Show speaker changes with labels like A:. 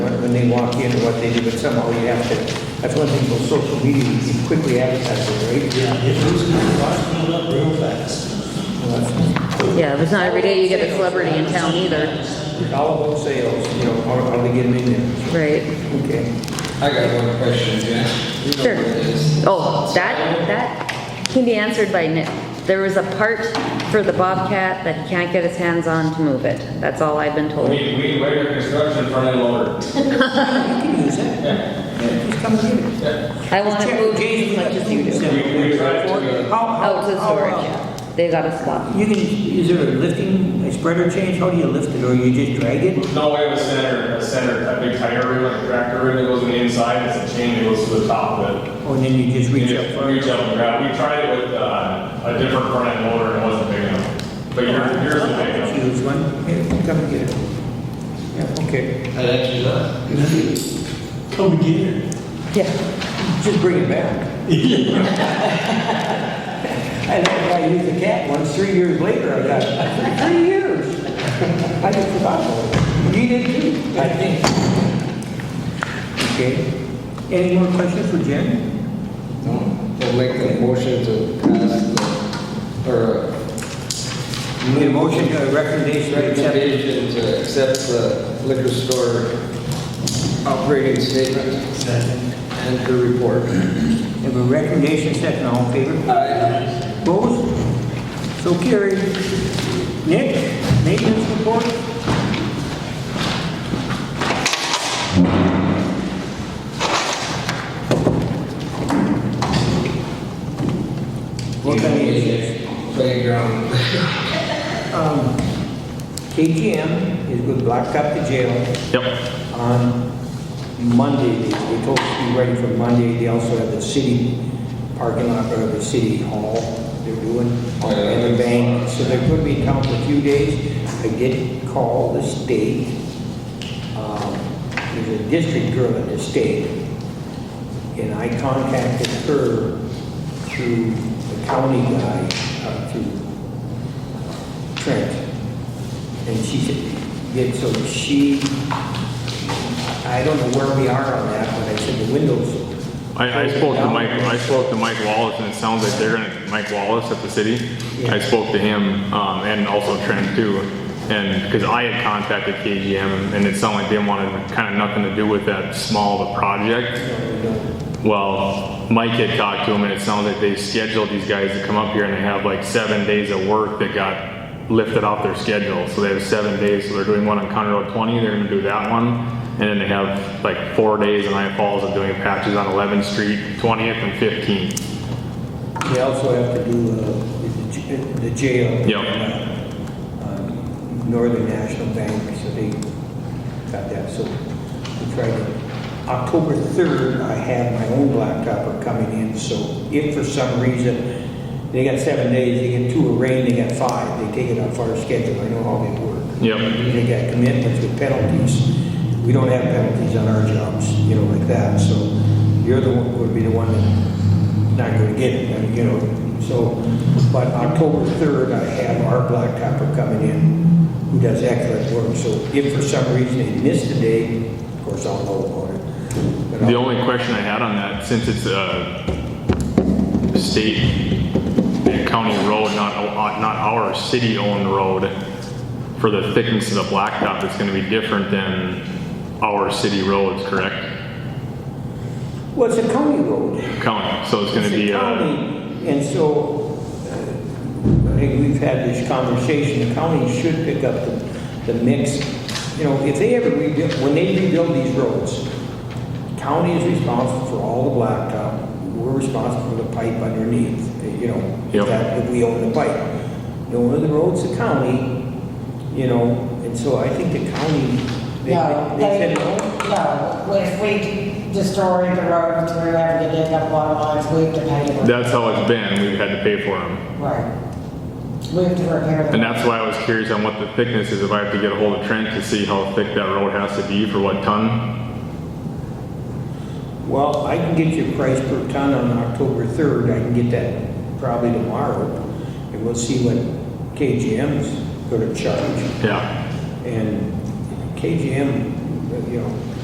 A: when they walk in or what they do, but somehow you have to, that's one thing about social media, you can quickly advertise it, right?
B: Yeah, it was, it was filled up real fast.
C: Yeah, but it's not every day you get a celebrity in town either,
A: All about sales, you know, are, are they getting in there?
C: right?
A: Okay.
D: I got one question, Jen. You know
C: Sure.
D: what it is.
C: Oh, that, that can be answered by Nick. There was a part for the Bobcat that he can't get his hands on to move it. That's all I've been told.
E: We, we waited construction for that loader.
A: Just come get it.
C: I want to move as much as you
E: We,
C: do.
E: we tried to, uh,
A: oh,
C: Out to Oh, storage,
A: How,
C: yeah. They got a spot.
A: how, you can, is there a lifting, a spreader change, how do you lift it, or you just drag it?
E: uh, no, we have a center, a center, a big tire rig, like a tractor rig that goes on the inside, it's a chain that goes to the top of it.
A: Or then you just
E: You
A: reach
E: just
A: up?
E: reach up and grab, we tried it with, uh, a different front end loader and it wasn't big enough. But yours, yours is big enough.
A: Choose one, here, come and get it. Yeah, okay,
D: I'd actually love.
B: Come and get it.
C: Yeah.
A: just bring it back. I had a guy use the cat once, three years later, I got it, three years. I just forgot about it. You did too, I think. Okay, any more questions for Jen?
D: I'll make a motion to pass the, or. uh,
A: Need a motion, a recommendation, right, accept it?
D: Recommendation to accept the liquor store operating statement
B: Second.
D: and the report.
A: Have a recommendation second, all in favor?
D: Aye.
A: Opposed? So carried. Nick, maintenance report? What kind of is it?
D: Playground.
A: Um, KTM is going to block up the jail
E: Yep.
A: on Monday. They they told us to be ready for Monday. They also have the city parking lot or the city hall they're doing and the bank. So they're going to be down for a few days. I did call the state. Um, There's a district girl in the state and I contacted her through the county guy, uh, through Trent. And she said, did, so she I don't know where we are on that, but I said the windows.
F: I, I spoke to Mike, I spoke to Mike Wallace, and it sounds like they're gonna, Mike Wallace at the city. I spoke to him, um, and also Trent too, and, cause I had contacted KGM, and it sounded like they wanted kinda nothing to do with that small of a project. Well, Mike had talked to him, and it sounded like they scheduled these guys to come up here, and they have like seven days of work that got lifted off their schedule, so they have seven days, so they're doing one on County Road twenty, they're gonna do that one, and then they have like four days in Iron Falls of doing patches on Eleventh Street, twentieth and fifteenth.
A: They also have to do uh, the j- the jail.
F: Yep.
A: um, Northern National Bank, so they got that, so we tried to. October 3rd, I have my own blacktopper coming in, so if for some reason, they got seven days, they get two of rain, they got five, they take it off our schedule, I know how they work.
F: Yep.
A: They got commitments with penalties. We don't have penalties on our jobs, you know, like that, so you're the one, would be the one that's not gonna get it, I mean, you know, so, but October third, I have our blacktopper coming in, who does excellent work, so if for some reason they miss the day, of course, I'll know about it. But
F: The
A: I'll-
F: only question I had on that, since it's a state and county road, not, uh, not our city-owned road, for the thickness of the blacktop, it's gonna be different than our city roads, correct?
A: Well, it's a county road.
F: County, so it's gonna
A: It's a
F: be, uh,
A: county, And so, uh, I think we've had this conversation, the county should pick up the, the mix. You know, if they ever rebuild, when they rebuild these roads, county is responsible for all the blacktop. We're responsible for the pipe underneath, you know, if
F: Yep.
A: that- if we own the pipe. The owner of the road's the county, you know, and so I think the county, they,
G: No,
A: they
G: they,
A: said no.
G: no, if we destroy the road, we are having to dig up water lines, we have to pay for it.
F: that's how it's been, we've had to pay for them.
G: Right. We have to repair the.
F: And that's why I was curious on what the thickness is, if I have to get a hold of Trent to see how thick that road has to be for what ton.
A: Well, I can get you a price per ton on October 3rd, I can get that probably tomorrow, and we'll see what KGM's gonna charge.
F: Yeah,
A: And KGM, you know,